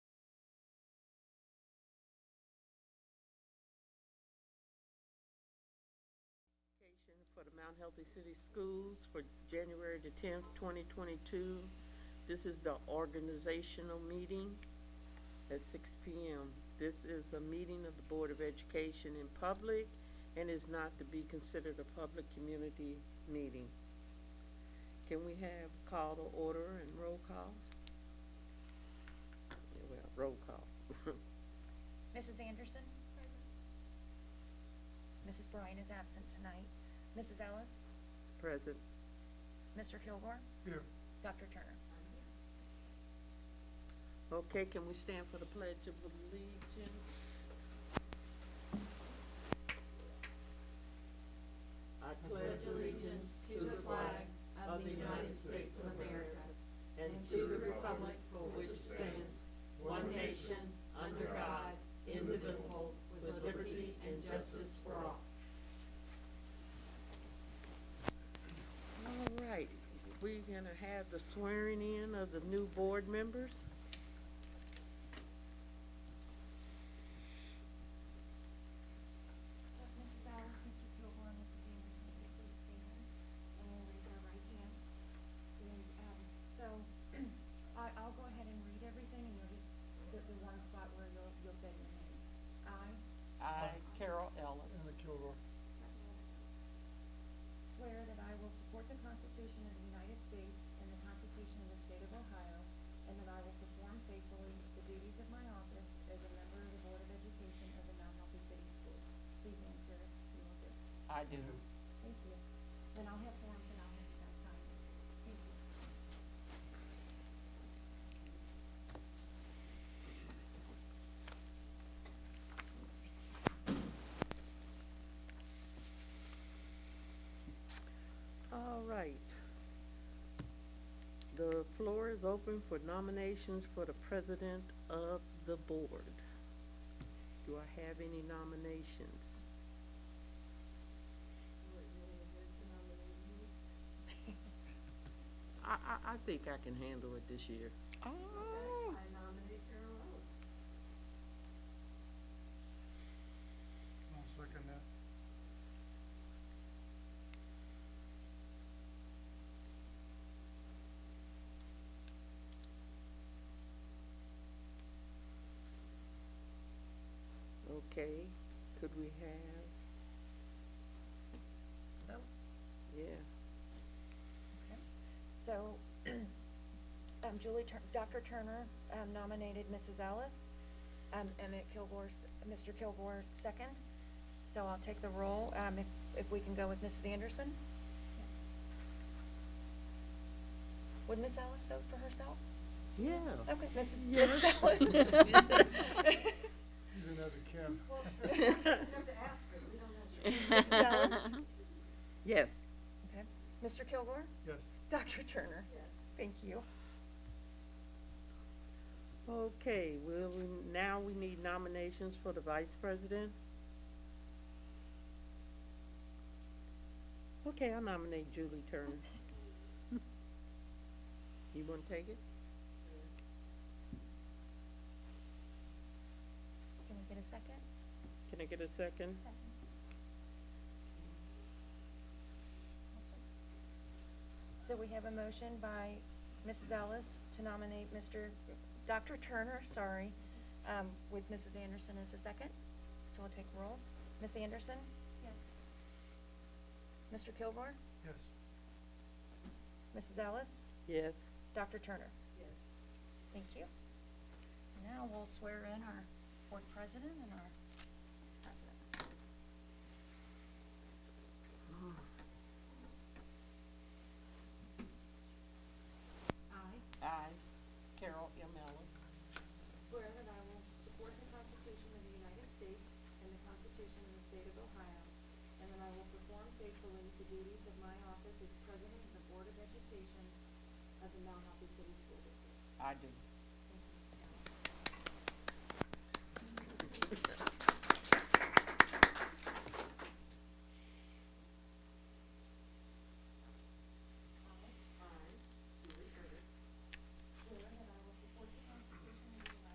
for the Mount Healthy City Schools for January the tenth, twenty twenty-two. This is the organizational meeting at six P M. This is a meeting of the Board of Education in public and is not to be considered a public community meeting. Can we have call to order and roll call? Yeah, Well, roll call. Mrs. Anderson? Mrs. Bryan is absent tonight. Mrs. Ellis? Present. Mr. Kilgore? Here. Dr. Turner? Okay, can we stand for the pledge of allegiance? I pledge allegiance to the flag of the United States of America and to the republic for which it stands, one nation, under God, indivisible, with liberty and justice for all. All right, we're gonna have the swearing in of the new board members. Mrs. Allen, Mr. Kilgore, Mrs. Anderson, if you please stand and we'll raise our right hand. And, um, so, I, I'll go ahead and read everything and you'll just, there'll be one spot where you'll, you'll say your name. I I, Carol Ellis, Anna Kilroy. swear that I will support the Constitution of the United States and the Constitution of the State of Ohio, and that I will perform faithfully the duties of my office as a member of the Board of Education of the Mount Healthy City Schools. Please answer, you will do. I do. Thank you. Then I'll have forms and I'll have you guys sign it. Thank you. All right. The floor is open for nominations for the president of the board. Do I have any nominations? I, I, I think I can handle it this year. Oh. I nominate Carol Ellis. I'll second that. Okay, could we have, Vote. yeah, So, um, Julie Tur- Dr. Turner, um, nominated Mrs. Ellis. Um, Emmett Kilgore, s- Mr. Kilgore second. So I'll take the roll, um, if, if we can go with Mrs. Anderson? Would Miss Ellis vote for herself? yeah. Okay, Mrs. Yes. Mrs. Ellis. She's another Kim. Well, you have to ask her, we don't know. Mrs. Ellis? Yes, Okay. Mr. Kilgore? Yes. Dr. Turner? Yes. Thank you. okay, well, we- now we need nominations for the vice president. Okay, I nominate Julie Turner. You wanna take it? Can we get a second? Can I get a second? So we have a motion by Mrs. Ellis to nominate Mr., Dr. Turner, sorry, um, with Mrs. Anderson as a second. So we'll take roll. Ms. Anderson? Yes. Mr. Kilgore? Yes. Mrs. Ellis? Yes, Dr. Turner? Yes. Thank you. Now we'll swear in our board president and our president. I I, Carol M. Ellis, swear that I will support the Constitution of the United States and the Constitution of the State of Ohio, and that I will perform faithfully the duties of my office as President of the Board of Education of the Mount Healthy City School District. I do.